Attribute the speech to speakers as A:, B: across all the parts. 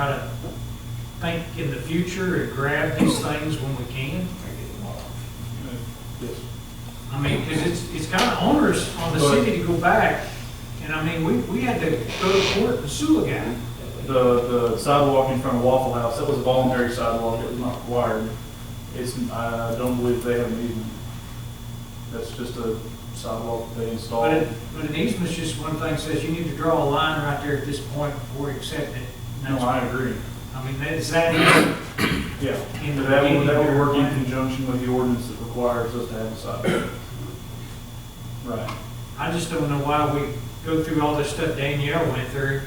A: try to think in the future and grab these things when we can.
B: Yes.
A: I mean, because it's, it's kind of onerous on the city to go back, and I mean, we, we had to go to court and sue a guy.
B: The, the sidewalk in front of Waffle House, that was a voluntary sidewalk, it was not required. It's, I don't believe they have an easement. That's just a sidewalk they
A: But
B: installed.
A: it, but an easement's just one thing, says you need to draw a line right there at this point before you accept it.
B: No, I agree.
A: I mean, that's that, easy.
B: Yeah.
A: In
B: But that
A: the
B: would, that would work in
A: beginning.
B: conjunction with the ordinance that requires us to have a sidewalk. Right.
A: I just don't know why we go through all this stuff Danielle went through,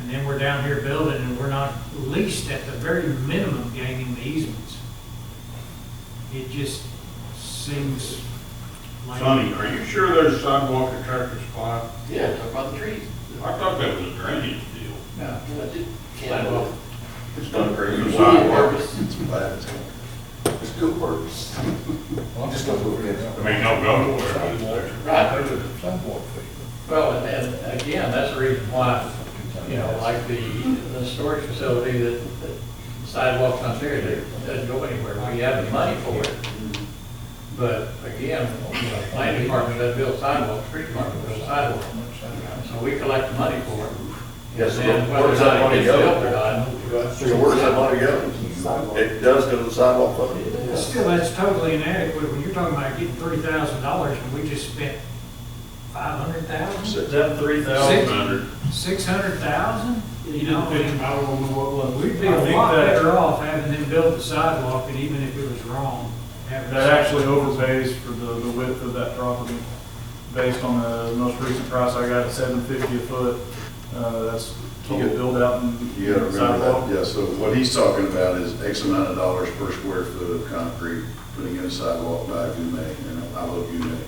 A: and then we're down here building, and we're not at least at the very minimum gaining the easements. It just seems like.
C: Sonny, are you sure there's a sidewalk at Tractor Supply?
D: Yeah, talk about the trees.
C: I thought that was a drainage deal.
D: No. I did, can't, well,
C: It's not a
D: it's
C: drainage
D: really a
C: sidewalk.
D: purpose.
E: It's good works. I'm just gonna go over there
C: I
E: now.
C: mean, no go nowhere.
D: Right,
E: Sidewalk thing.
D: well, and, and again, that's the reason why, you know, like the, the storage facility that that sidewalks on there, that doesn't go anywhere, we have the money for it. But again, you know, planning department doesn't build sidewalks, street department builds sidewalks, so we collect the money for it.
F: Yes, so
D: And
F: where does that money
D: whether or not it gets
F: go?
D: built or not,
F: So where does that money go? It does go to the sidewalk fund.
A: Still, that's totally inadequate, when you're talking about getting thirty thousand dollars, and we just spent five hundred thousand,
B: That three
A: Six.
B: thousand.
C: Under-
A: six hundred thousand? You know, I mean,
B: I don't know what was.
A: we'd be
B: I
A: a
B: think
A: lot
B: that-
A: better off having them build the sidewalk, and even if it was wrong, having.
B: That actually overpays for the, the width of that property. Based on the most recent price I got, seven fifty a foot, uh, that's total build out and.
F: Oh. You gotta remember
B: sidewalk.
F: that, yeah, so what he's talking about is X amount of dollars per square foot of concrete, putting in a sidewalk back in May, and I love you, May.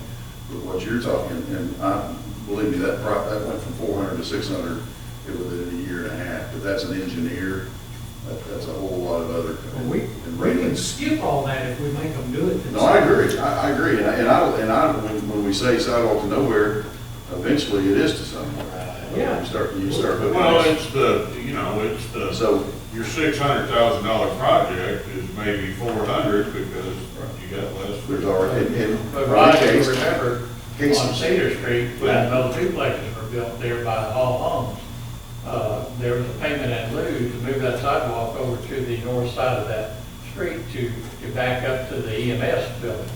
F: But what you're talking, and I, believe me, that pro, that went from four hundred to six hundred within a year and a half, but that's an engineer, that, that's a whole lot of other.
A: Well, We,
F: and
A: we can
F: maintenance.
A: skip all that if we make them do it.
F: No, I agree, I, I agree, and I- and I, and I, when, when we say sidewalk to nowhere, eventually it is to somewhere.
A: Yeah.
F: You start, you start hooking.
C: Well,
F: it.
C: it's the, you know, it's the,
F: So,
C: your six hundred thousand dollar project is maybe four hundred because you got less.
F: there's already, in, in.
D: But Rod,
F: in
D: you
F: case-
D: remember,
F: case-
D: on Cedar Street, when those duplexes were built there by Hall Homes, uh, there was a payment in lieu to move that sidewalk over to the north side of that street to, to back up to the EMS building.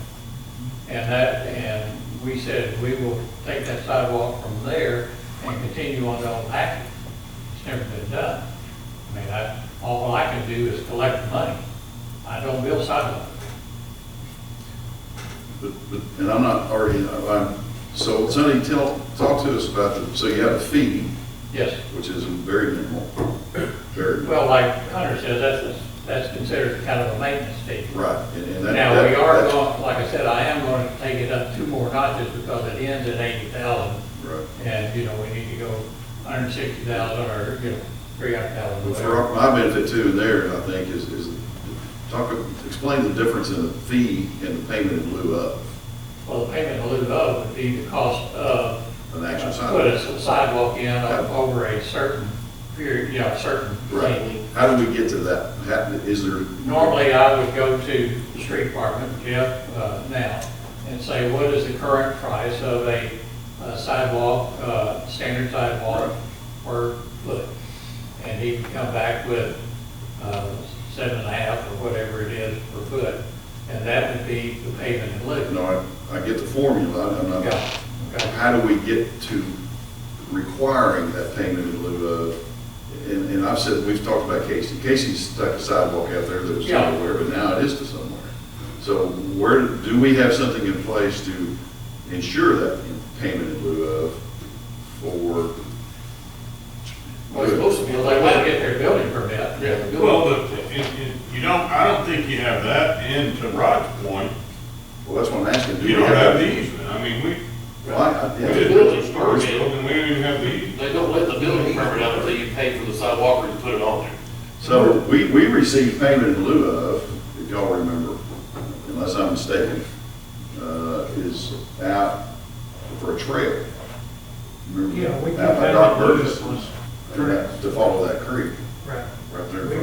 D: And that, and we said, we will take that sidewalk from there and continue on down Packard. It's never been done. I mean, I, all I can do is collect the money. I don't build sidewalks.
F: But, but, and I'm not already, I'm, so Sonny, tell, talk to us about the, so you have a fee,
D: Yes.
F: which is very minimal, very,
D: Well, like Hunter says, that's, that's considered kind of a maintenance fee.
F: right, and, and that.
D: Now, we
F: that-
D: are
F: that-
D: going, like I said, I am going to take it up two more notches because it ends at eighty thousand.
F: Right.
D: And, you know, we need to go hundred and sixty thousand or, you know, three hundred thousand.
F: Well, For our- my benefit too, and there, I think, is, is talk, explain the difference in the fee and the payment in lieu of
D: Well, the payment in lieu of would be the cost of
F: an actual
D: uh, put
F: sidewalk.
D: a sidewalk in
F: Yep.
D: over a certain period, you know, certain length.
F: Right. How do we get to that? How, is there?
D: Normally, I would go to the street department, Jeff, uh, now, and say, what is the current price of a a sidewalk, uh, standard sidewalk per foot? And he can come back with uh, seven and a half or whatever it is per foot, and that would be the payment in lieu.
F: No, I, I get the formula, I'm not,
D: Yeah, okay.
F: how do we get to requiring that payment in lieu of? And, and I've said, we've talked about Casey, Casey stuck a sidewalk out there that was
D: Yeah.
F: nowhere, but now it is to somewhere. So where, do we have something in place to ensure that payment in lieu of for?
D: Well, it's supposed to be, like, when they get their building permit. Yeah.
C: Well, but it, it, you don't, I don't think you have that and to Rod's point,
F: Well, that's what I'm asking. do
C: you
F: we
C: don't have the easement. I mean, we,
F: Well, I- I-
C: we
F: yeah.
C: did build a storage building, we didn't even have the easement.
G: They don't let the building permit out until you pay for the sidewalk or you put it on there.
F: So we, we received payment in lieu of, if y'all remember, unless I'm mistaken, uh, is out for a trail. Remember?
A: Yeah, we
F: Out by
A: can-
F: Doc Burgess,
A: Correct.
F: to follow that creek
A: Right.
F: right there.